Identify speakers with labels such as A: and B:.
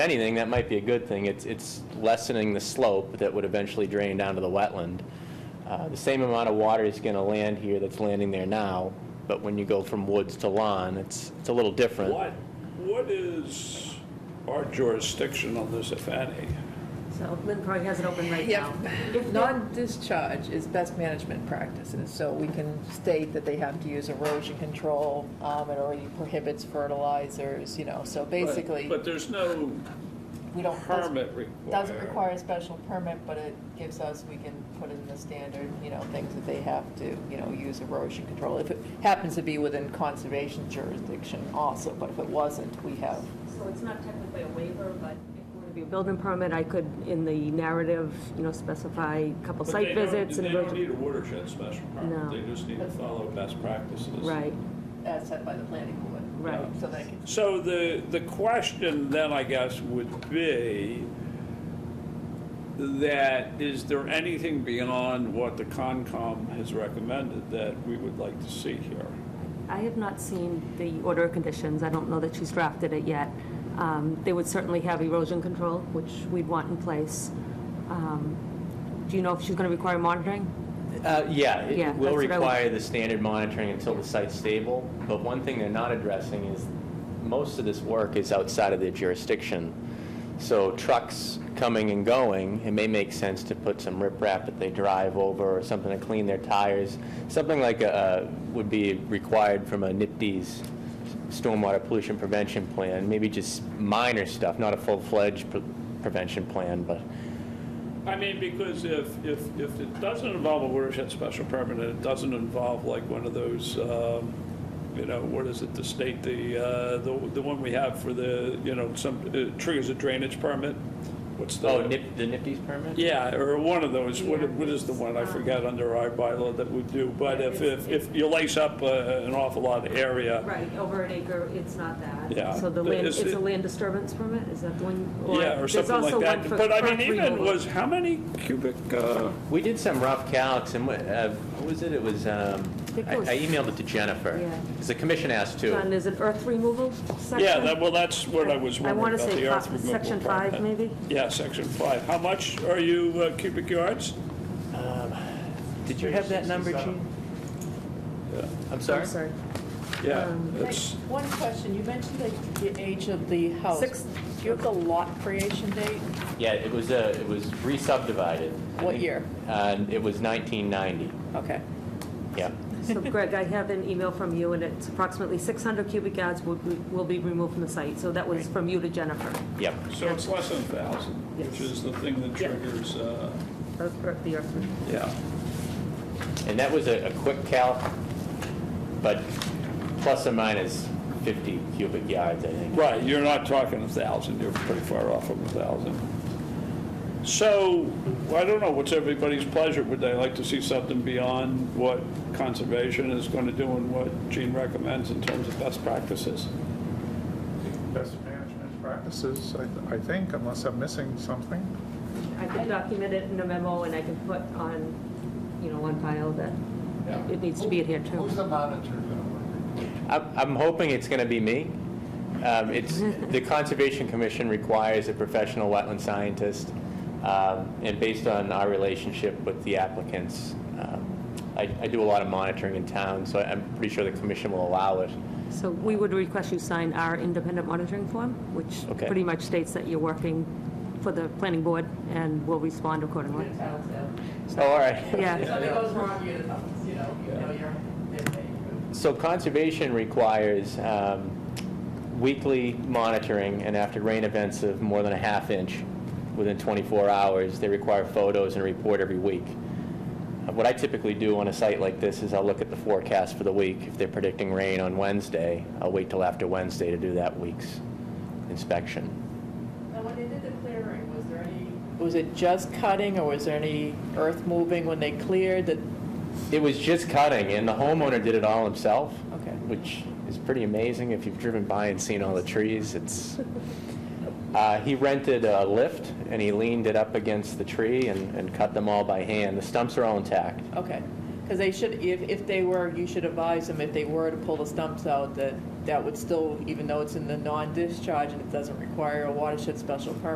A: anything, that might be a good thing. It's, it's lessening the slope that would eventually drain down to the wetland. Uh, The same amount of water is going to land here that's landing there now, but when you go from woods to lawn, it's, it's a little different.
B: What, what is our jurisdiction on this, if any?
C: So Lynn probably has it open right now.
D: Yep. Non-discharge is best management practices, so we can state that they have to use erosion control. um, It already prohibits fertilizers, you know, so
B: But-
D: basically,
B: But there's no
D: we don't.
B: permit required.
D: Doesn't require a special permit, but it gives us, we can put in the standard, you know, things that they have to, you know, use erosion control. If it happens to be within conservation jurisdiction also, but if it wasn't, we have
C: So it's not technically a waiver, but if it were to be a building permit, I could, in the narrative, you know, specify a couple
B: But they
C: site
B: don't-
C: visits and.
B: They don't
C: emerg-
B: need a watershed special permit.
C: No.
B: They just need to follow best practices.
C: Right,
D: as set by the planning board.
C: Right.
D: So they can,
B: So the, the question then, I guess, would be that is there anything beyond what the Concom has recommended that we would like to see here?
E: I have not seen the order of conditions. I don't know that she's drafted it yet. Um, They would certainly have erosion control, which we'd want in place. Um, Do you know if she's going to require monitoring?
A: Uh, Yeah,
E: Yeah,
A: it will
E: that's what I would-
A: require the standard monitoring until the site's stable, but one thing they're not addressing is most of this work is outside of their jurisdiction. So trucks coming and going, it may make sense to put some riprap that they drive over or something to clean their tires. Something like uh, would be required from a NIPD's stormwater pollution prevention plan, maybe just minor stuff, not a full-fledged pre- prevention plan, but
B: I mean, because if, if, if it doesn't involve a watershed special permit, and it doesn't involve like one of those, um, you know, what is it, the state, the, uh, the the one we have for the, you know, some, uh, triggers a drainage permit? What's the?
A: Oh, nip, the NIPD's permit?
B: Yeah, or one of those, what, what is the
E: Um,
B: one, I forgot, under our bylaw that we do, but if, if, if you lace up uh, an awful lot of area,
E: Right, over an acre, it's not that.
B: Yeah.
E: So the land,
B: Is
E: it's
B: it-
E: a land disturbance permit, is that the one?
B: yeah, or
E: there's
B: something
E: also
B: like that.
E: one for
B: But I
E: earth
B: mean, even
E: removal.
B: was, how many cubic, uh,
A: We did some rough calcs, and what, uh, what was it? It was, um,
E: think it
A: I
E: was-
A: I emailed it to Jennifer.
E: Yeah.
A: Because the commission asked too.
E: John, there's an earth removal section?
B: yeah, that, well, that's what I was
E: I
B: wondering
E: want to
B: about,
E: say
B: the earth
E: fi-
B: removal.
E: section five,
B: permit.
E: maybe?
B: Yeah, section five. How much are you uh, cubic yards?
A: Did you have that number, Gene?
B: Yeah.
A: Uh, I'm
E: I'm
A: sorry?
E: sorry.
B: Yeah,
E: Um,
D: Like,
B: it's,
D: One question, you mentioned like the age of the house.
E: Six-
D: Do you have the lot creation date?
A: Yeah, it was, uh, it was re-subdivided. I
D: What
A: think,
D: year?
A: Uh, It was 1990,
D: Okay.
A: yeah.
E: So Greg, I have an email from you, and it's approximately 600 cubic yards will be- will be removed from the site. So that was from you to Jennifer,
A: Yep.
B: so it's less than a thousand, which
E: Yes.
B: is the thing that
E: Yeah.
B: triggers, uh,
E: the earth- the earth removal.
B: yeah.
A: And that was a a quick calc, but plus or minus 50 cubic yards, I think.
B: Right, you're not talking a thousand, you're pretty far off from a thousand. So, I don't know, what's everybody's pleasure? Would they like to see something beyond what conservation is going to do and what Gene recommends in terms of best practices?
F: best management practices, I th- I think, unless I'm missing something.
E: I could document it in a memo, and I can put on, you know, on file that it needs to be adhered to.
G: Who's the monitor going to work?
A: I'm I'm hoping it's going to be me. Um, It's, the Conservation Commission requires a professional wetland scientist, um, and based on our relationship with the applicants, um, I I do a lot of monitoring in town, so I'm pretty sure the commission will allow it.
E: So we would request you sign our independent monitoring form, which
A: Okay.
E: pretty much states that you're working for the planning board, and will respond accordingly.
A: So, all right.
E: Yeah.
D: Something goes wrong, you know, you know, you know you're,
A: So Conservation requires um, weekly monitoring, and after rain events of more than a half inch within 24 hours, they require photos and report every week. Uh, What I typically do on a site like this is I'll look at the forecast for the week. If they're predicting rain on Wednesday, I'll wait till after Wednesday to do that week's inspection.
H: Now, when they did the clearing, was there any,
D: Was it just cutting or was there any earth moving when they cleared that,
A: It was just cutting, and the homeowner did it all himself,
D: okay.
A: which is pretty amazing if you've driven by and seen all the trees. It's, uh, he rented a lift, and he leaned it up against the tree and and cut them all by hand. The stumps are all intact.
D: Okay, Because they should, if, if they were, you should advise them if they were to pull the stumps out, that that would still, even though it's in the non-discharge and it doesn't require a watershed special permit,